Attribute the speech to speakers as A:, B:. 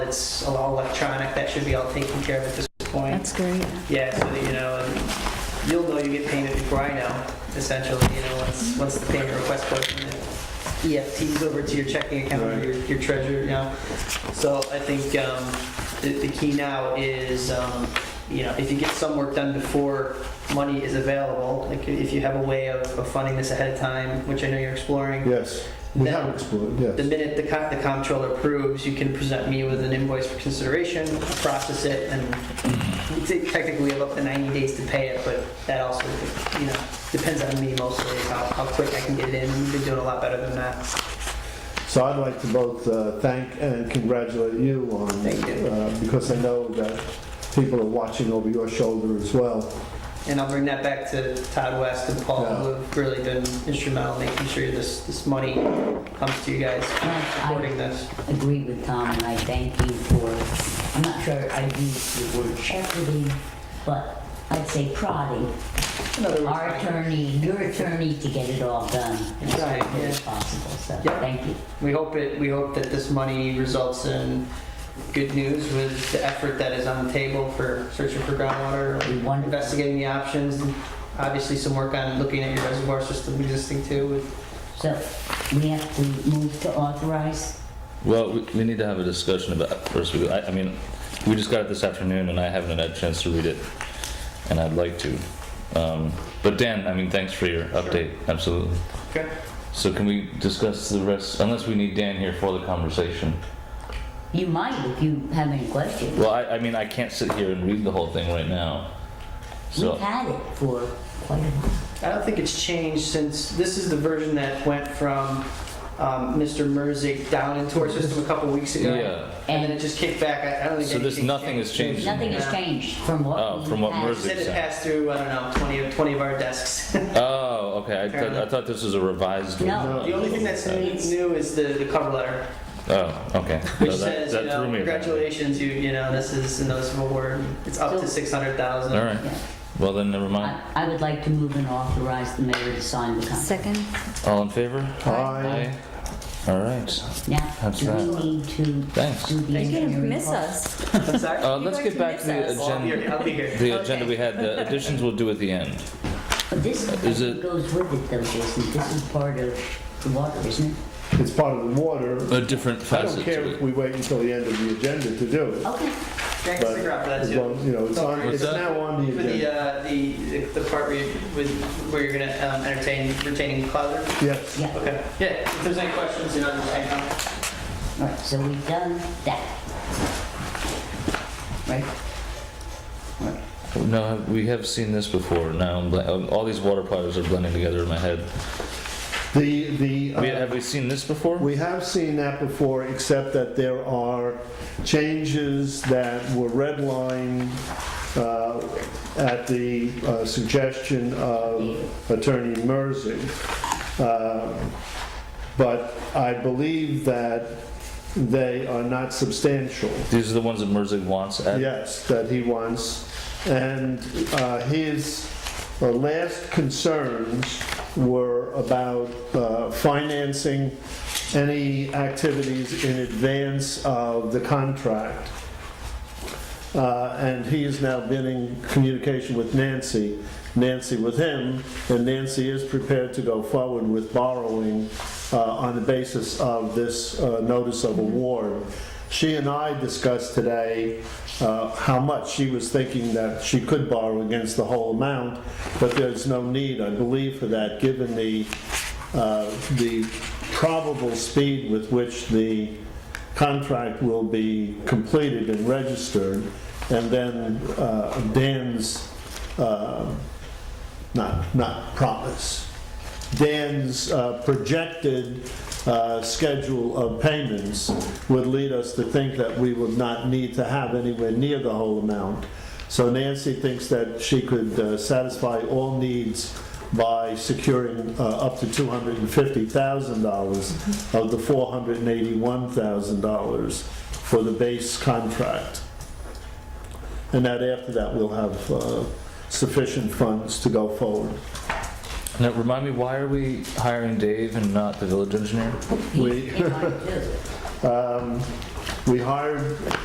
A: it's all electronic, that should be all taken care of at this point.
B: That's great.
A: Yeah, so that, you know, and you'll know you get painted before I know, essentially, you know, once, once the payment request goes from the EFTs over to your checking account or your, your treasurer, you know. So I think, um, the, the key now is, um, you know, if you get some work done before money is available, like if you have a way of, of funding this ahead of time, which I know you're exploring,
C: Yes, we
A: Now-
C: have explored,
A: the
C: yes.
A: minute the co- the comptroller approves, you can present me with an invoice for consideration, process it, and we take- technically we have up to 90 days to pay it, but that also, you know, depends on me mostly, how, how quick I can get it in. We've been doing a lot better than that.
C: So I'd like to both uh, thank and congratulate you on,
A: Thank you.
C: uh, because I know that people are watching over your shoulder as well.
A: And I'll bring that back to Todd West and Paul,
C: Yeah.
A: who have really been instrumental in making sure this, this money comes to you guys, supporting this.
D: agree with Tom, and I thank you for, I'm not sure I used the word shepherding, but I'd say prodding
A: In other words,
D: our
A: thank you.
D: attorney, your attorney, to get it all done as
A: Right,
D: quickly
A: yeah.
D: as possible, so,
A: Yep.
D: thank you.
A: We hope it, we hope that this money results in good news with the effort that is on the table for searching for groundwater,
D: Wonderful.
A: investigating the options, and obviously some work on looking at your reservoir system existing too. with-
D: So, we have to move to authorize?
E: Well, we, we need to have a discussion about, first, we- I, I mean, we just got it this afternoon and I haven't had a chance to read it, and I'd like to. Um, but Dan, I mean, thanks for your update, absolutely.
A: Okay.
E: So can we discuss the rest, unless we need Dan here for the conversation?
D: You might if you have any questions.
E: Well, I, I mean, I can't sit here and read the whole thing right now.
D: We've
E: So,
D: had it for quite a while.
A: I don't think it's changed since, this is the version that went from um, Mr. Merzick down into our system a couple weeks ago.
E: yeah,
A: And then it just kicked back. I- I don't think.
E: so this,
A: anything
E: nothing has changed.
D: Nothing has changed from what
E: Oh,
D: we had.
E: from what Merzick-
A: Said it passed through, I don't know, 20 of, 20 of our desks.
E: Oh, okay, I thought, I thought this was a revised.
D: No.
A: The only thing that's new is the, the cover letter.
E: Oh, okay.
A: Which
E: No, that-
A: says,
E: that
A: you
E: threw
A: know,
E: me a bit.
A: congratulations, you, you know, this is a noticeable word. It's up to
D: So-
A: six hundred thousand.
E: All right,
D: Yeah.
E: well then, never mind.
D: I I would like to move and authorize the mayor to sign the contract.
B: Second?
E: All in favor?
C: Aye.
E: All right,
D: Now,
E: That's
D: do we
E: right.
D: need to
E: Thanks.
D: do the
B: You're gonna
D: engineering
B: miss
D: cost?
B: us.
A: I'm sorry.
E: Uh,
B: You're
E: let's
B: going
E: get
B: to
E: back
B: miss
E: to the
B: us.
A: Well, I'll be
E: agenda,
A: here. I'll be here.
E: the
B: Okay.
E: agenda we had, the additions we'll do at the end.
D: But this
E: Is it-
D: goes with it though, Jason, this is part of the water, isn't it?
C: It's part of the water.
E: A different
C: I don't
E: facet
C: care
E: to
C: if
E: it.
C: we wait until the end of the agenda to do it.
D: Okay,
A: Thanks,
C: But
A: Sigrid, for that
C: as
A: too.
C: long, you know, it's on,
A: What's
C: it's
E: that?
C: now on the
A: For
C: agenda.
A: the, uh, the, the part where, you- with, where you're gonna um, entertain, retaining Clouder?
C: Yes,
D: yeah,
A: Okay. Yeah, if there's any questions, you know, I know.
D: all right, so we've done that. Right?
E: No, we have seen this before, now, I'm bl- um, all these water platters are blending together in my head.
C: the, the.
E: We-
C: uh,
E: Have we seen this before?
C: We have seen that before, except that there are changes that were redlined uh, at the uh, suggestion of Attorney Merzig. Uh, But I believe that they are not substantial.
E: These are the ones that Merzig wants at,
C: Yes, that he wants. And uh, his uh, last concerns were about uh, financing any activities in advance of the contract. Uh, And he has now been in communication with Nancy, Nancy with him, and Nancy is prepared to go forward with borrowing uh, on the basis of this uh, notice of award. She and I discussed today uh, how much she was thinking that she could borrow against the whole amount, but there's no need, I believe, for that, given the, uh, the probable speed with which the contract will be completed and registered, and then uh, Dan's, uh, not, not promise, Dan's uh, projected uh, schedule of payments would lead us to think that we would not need to have anywhere near the whole amount. So Nancy thinks that she could uh, satisfy all needs by securing uh, up to $250,000 of the $481,000 for the base contract. And that after that, we'll have uh, sufficient funds to go forward.
E: now, remind me, why are we hiring Dave and not the village engineer?
D: He's in on it too.
C: Um, We hired